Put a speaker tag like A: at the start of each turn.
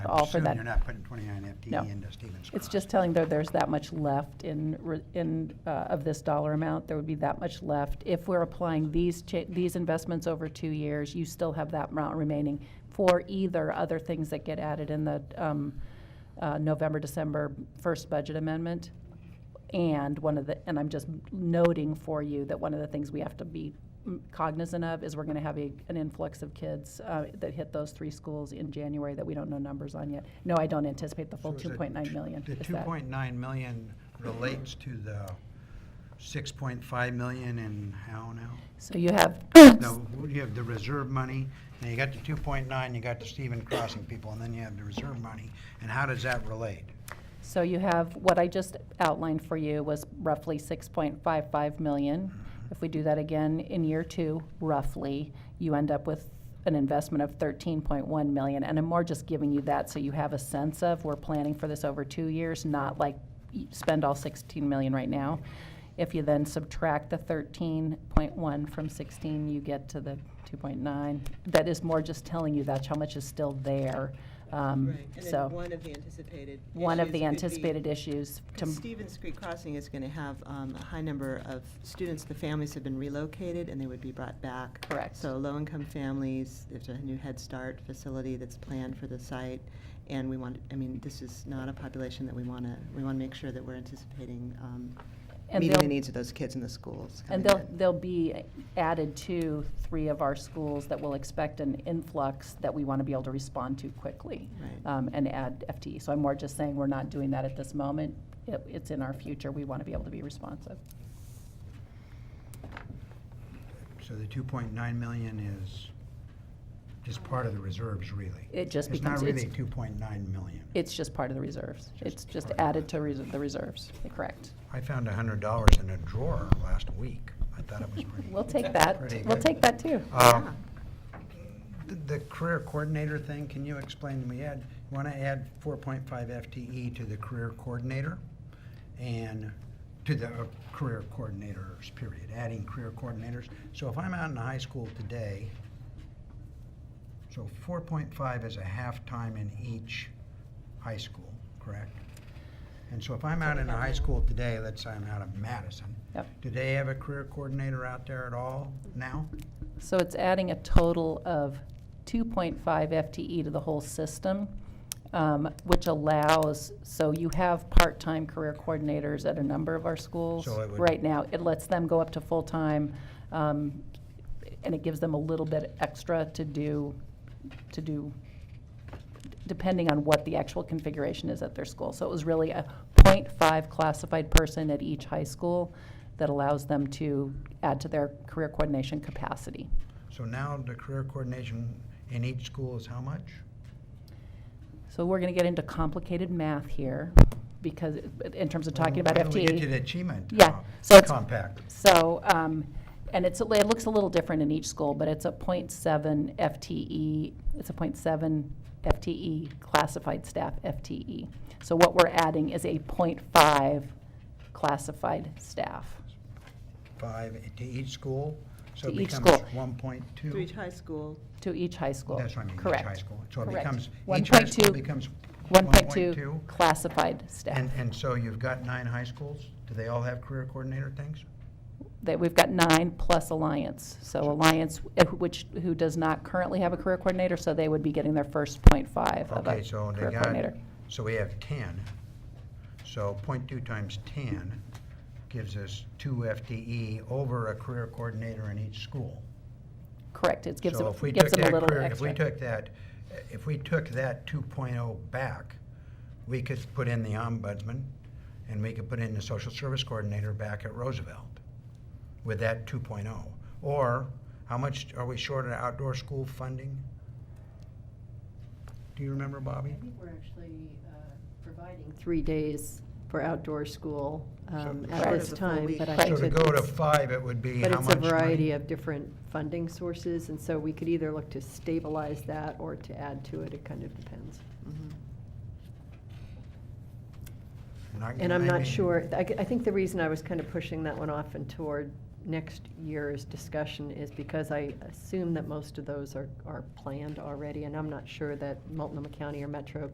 A: all for
B: assuming
A: that.
B: You're not putting 29
A: No.
B: FTE E into Stevens Cross.
A: It's just telling there there's that much left in, re- in, uh, of this dollar amount, there would be that much left. If we're applying these, cha- these investments over two years, you still have that amount remaining for either other things that get added in the um, uh, November, December first budget amendment. And one of the, and I'm just noting for you that one of the things we have to be cognizant of is we're going to have a, an influx of kids uh, that hit those three schools in January that we don't know numbers on yet. No, I don't anticipate the full
B: So is it
A: 2.9
B: t-
A: million.
B: The
A: Is that-
B: 2.9 million relates to the 6.5 million in how now?
A: So you have,
B: No, you have the reserve money, now you got the 2.9, you got the Stevens Crossing people, and then you have the reserve money, and how does that relate?
A: so you have, what I just outlined for you was roughly 6.55 million. If we do that again in year two, roughly, you end up with an investment of 13.1 million. And I'm more just giving you that so you have a sense of, we're planning for this over two years, not like y- spend all 16 million right now. If you then subtract the 13.1 from 16, you get to the 2.9. That is more just telling you that's how much is still there. Um,
C: Right, and
A: so-
C: then one of the anticipated
A: one of
C: issues
A: the
C: could be-
A: anticipated issues. to-
C: Because Stevens Creek Crossing is going to have um, a high number of students, the families have been relocated, and they would be brought back.
A: Correct.
C: So low-income families, there's a new Head Start facility that's planned for the site, and we want, I mean, this is not a population that we want to, we want to make sure that we're anticipating um,
A: And
C: meeting the
A: they'll-
C: needs of those kids in the schools.
A: And
C: coming
A: they'll,
C: in.
A: they'll be added to three of our schools that will expect an influx that we want to be able to respond to quickly.
C: Right.
A: um, And add FTE. So I'm more just saying, we're not doing that at this moment. It- It's in our future. We want to be able to be responsive.
B: So the 2.9 million is just part of the reserves, really?
A: It just
B: It's not
A: becomes-
B: really
A: it's-
B: 2.9 million.
A: It's just part of the reserves.
B: Just
A: It's just
B: part of
A: added to res- the reserves, correct.
B: I found $100 in a drawer last week. I thought it was pretty.
A: We'll take that.
B: Pretty
A: We'll
B: good.
A: take that, too.
B: Uh,
C: Yeah.
B: The the career coordinator thing, can you explain to me, Ed? You want to add 4.5 FTE E to the career coordinator and to the uh, career coordinators, period, adding career coordinators. So if I'm out in the high school today, so 4.5 is a half-time in each high school, correct? And so if I'm out in a high school today, let's say I'm out of Madison,
A: Yep.
B: do they have a career coordinator out there at all now?
A: So it's adding a total of 2.5 FTE E to the whole system, um, which allows, so you have part-time career coordinators at a number of our schools
B: So it would-
A: right now. It lets them go up to full-time, um, and it gives them a little bit extra to do, to do, depending on what the actual configuration is at their school. So it was really a .5 classified person at each high school that allows them to add to their career coordination capacity.
B: So now the career coordination in each school is how much?
A: So we're going to get into complicated math here because, in terms of talking about
B: Why don't We get to
A: FTE.
B: the achievement.
A: Yeah,
B: uh,
A: so it's-
B: Compact.
A: So, um, and it's, it looks a little different in each school, but it's a .7 FTE, E, it's a .7 FTE E classified staff FTE. So what we're adding is a .5 classified staff.
B: Five to each school, so it
A: To each
B: becomes
A: school.
B: one point
A: Uh,
B: two.
C: Through high school,
A: To each high school.
B: That's what I mean, each
A: Correct.
B: high school. So it
A: Correct.
B: becomes, each high school
A: 1.2
B: becomes one point
A: 1.2
B: two.
A: classified staff.
B: And, and so you've got nine high schools, do they all have career coordinator things?
A: That we've got nine plus Alliance. So Alliance, eh, which, who does not currently have a career coordinator, so they would be getting their first point five of a
B: Okay, so
A: career
B: they got,
A: coordinator.
B: so we have ten. So point two times ten gives us two FTE over a career coordinator in each school.
A: Correct, it gives
B: So
A: them,
B: if we
A: gives
B: took
A: them a
B: that
A: little
B: career- If we
A: extra.
B: took that, if we took that 2.0 back, we could put in the ombudsman, and we could put in the social service coordinator back at Roosevelt with that 2.0. Or, how much are we short of outdoor school funding? Do you remember, Bobby?
D: I think we're actually uh, providing three days for outdoor school
B: So-
D: um, at
A: Right.
D: this time, but I
A: Right.
B: So
D: think
B: to
D: that
B: go to
D: it's-
B: five, it would be how
D: But
B: much
D: it's a variety
B: money?
D: of different funding sources, and so we could either look to stabilize that or to add to it, it kind of depends.
C: Mm-hmm.
B: Not-
D: And I'm
B: I
D: not
B: mean,
D: sure, I, I think the reason I was kind of pushing that one off and toward next year's discussion is because I assume that most of those are, are planned already, and I'm not sure that Multnomah County or Metro